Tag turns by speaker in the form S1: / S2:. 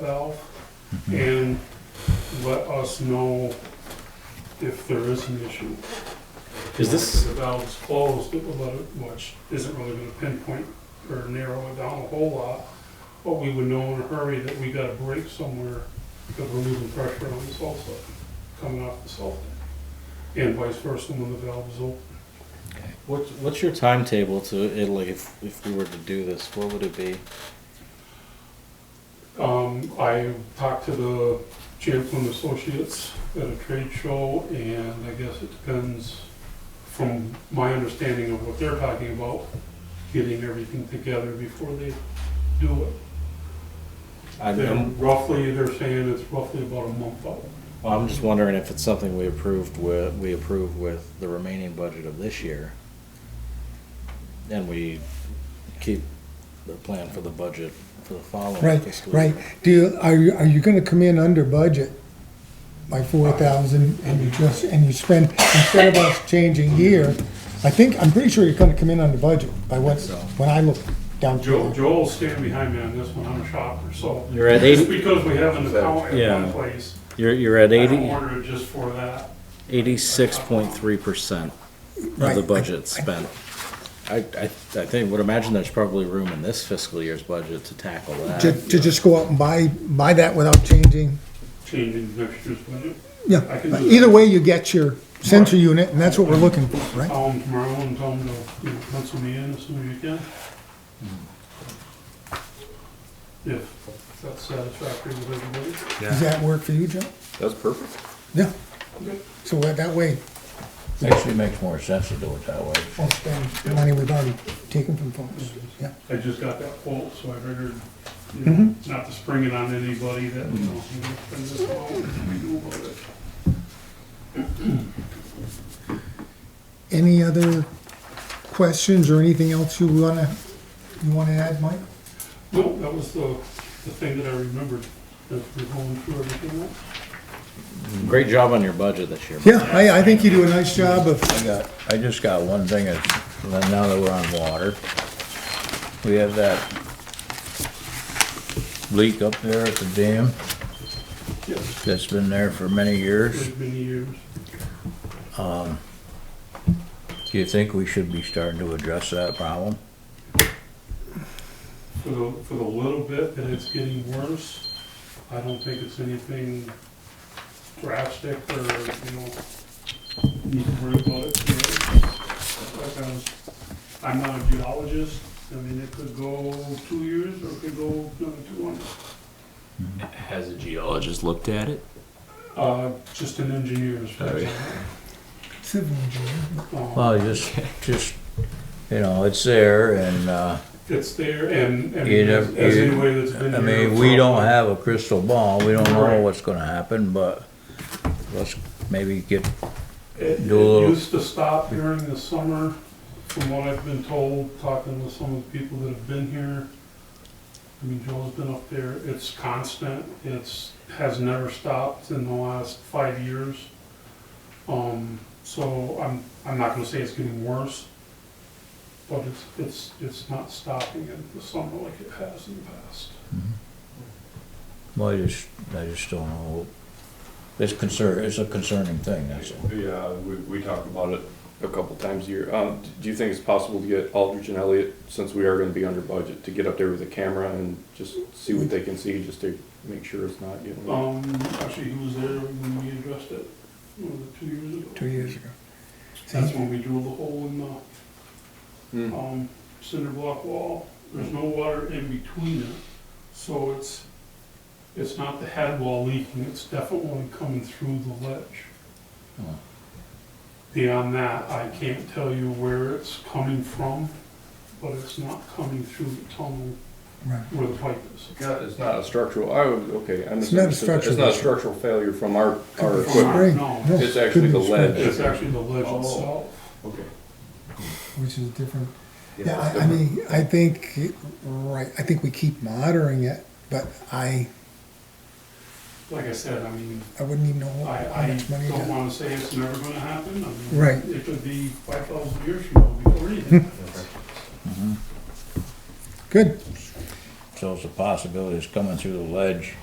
S1: valve
S2: Mm-hmm.
S1: and let us know if there is an issue.
S2: Is
S1: If
S2: this,
S1: the valve's closed, it will let it, which isn't really gonna pinpoint or narrow it down a whole lot, but we would know in a hurry that we got a break somewhere because we're losing pressure on the salt side, coming off the salt. And vice versa when the valve is open.
S2: what's, what's your timetable to Italy if, if we were to do this? What would it be?
S1: Um, I talked to the Champlin Associates at a trade show, and I guess it depends, from my understanding of what they're talking about, getting everything together before they do it.
S2: I mean,
S1: They're
S2: I'm,
S1: roughly, they're saying it's roughly about a month out.
S2: well, I'm just wondering if it's something we approved with, we approved with the remaining budget of this year. And we keep the plan for the budget for the following
S3: Right,
S2: fiscal year.
S3: right. Do, you- are you, are you gonna come in under budget by four thousand and you just, and you spend, instead of us changing here, I think, I'm pretty sure you're gonna come in under budget by what,
S2: So.
S3: when I look down
S1: Joe,
S3: through. it.
S1: Joel's standing behind me on this one, I'm a shopper, so.
S2: You're at
S1: Just
S2: eighty,
S1: because we have an account at
S2: Yeah.
S1: one place,
S2: you're, you're at
S1: I don't
S2: eighty,
S1: order it just for that.
S2: eighty-six point three percent of
S3: Right, I-
S2: the budget spent. I, I, I think, would imagine there's probably room in this fiscal year's budget to tackle that.
S3: To, to just go out and buy, buy that without changing,
S1: Changing next year's budget, I
S3: yeah.
S1: can do
S3: Either
S1: that.
S3: way, you get your sensor unit and that's what we're looking for, right?
S1: call them tomorrow and tell them to, you know, pencil me in as soon as you can. Mm. If that's satisfactory with everybody.
S3: Does that work for you, Joe?
S4: That's perfect.
S3: Yeah. So that that way,
S5: Actually makes more sense to do it that way.
S3: we'll spend the money we've already taken from folks, yeah.
S1: I just got that quote, so I figured, you know, not to spring it on anybody that, you know, you know, spend this long, we do about it.
S3: Any other questions or anything else you wanna, you wanna add, Mike?
S1: No, that was the, the thing that I remembered, as we're going through everything else.
S2: Great job on your budget this year.
S3: Yeah, I, I think you do a nice job of,
S5: I got, I just got one thing, is, now that we're on water, we have that leak up there at the dam
S1: Yes,
S5: that's been there for many
S1: it's
S5: years.
S1: been years.
S5: Do you think we should be starting to address that problem?
S1: For the, for the little bit that it's getting worse, I don't think it's anything drastic or, you know, need to worry about it. you know. Like I was- I'm not a geologist, I mean, it could go two years or it could go another two months.
S4: Has a geologist looked at it?
S1: Uh, just an engineer's.
S4: Sorry.
S3: civil engineer.
S1: Um,
S5: Oh, Well, just, just, you know, it's there and, uh,
S1: It's there and, and
S5: You
S1: as
S5: nev-
S1: as
S5: you-
S1: anybody that's been
S5: I
S1: here.
S5: mean,
S1: for-
S5: we don't have a crystal ball, we don't know
S1: Right.
S5: what's gonna happen, but let's maybe get,
S1: It,
S5: Do
S1: it
S5: a little-
S1: used to stop during the summer, from what I've been told, talking with some of the people that have been here. I mean, Joel's been up there, it's constant, it's, has never stopped in the last five years. Um, so I'm, I'm not gonna say it's getting worse, but it's, it's, it's not stopping in the summer like it has in the past.
S5: well, I just, I just don't know. It's concern, it's a concerning thing, that's all.
S4: Yeah, we, we talk about it a couple times a year. Um, do you think it's possible to get Aldrich and Elliott, since we are gonna be under budget, to get up there with a camera and just see what they can see, just to make sure it's not getting?
S1: Um, actually, he was there when we addressed it, what was it, two years ago?
S3: Two years ago.
S1: That's when we drilled the hole in the
S4: Hmm.
S1: um, cinder block wall, there's no water in between it, so it's, it's not the head wall leaking, it's definitely coming through the ledge.
S5: Oh.
S1: Beyond that, I can't tell you where it's coming from, but it's not coming through the tunnel
S3: Right.
S1: where the pipe is.
S4: Not- It's not a structural, I would, okay, I
S3: It's not a
S4: misunderstood. that. It's
S3: structural
S4: not a
S3: issue.
S4: structural failure from our, our
S3: Could be
S4: equipment.
S3: spring.
S1: No,
S3: No,
S4: it's actually
S3: could be
S4: the lead.
S3: spring,
S1: It's actually the ledge
S4: Oh.
S1: itself.
S4: Okay.
S3: Which is different. Yeah, I, I mean, I think, right, I think we keep monitoring it, but I,
S1: Like I said, I mean,
S3: I wouldn't even know
S1: I,
S3: how
S1: I
S3: much money
S1: don't
S3: to.
S1: wanna say it's never gonna happen. I mean,
S3: Right.
S1: It could be five thousand years from now before anything happens.
S3: Good,
S5: So it's a possibility it's coming through the ledge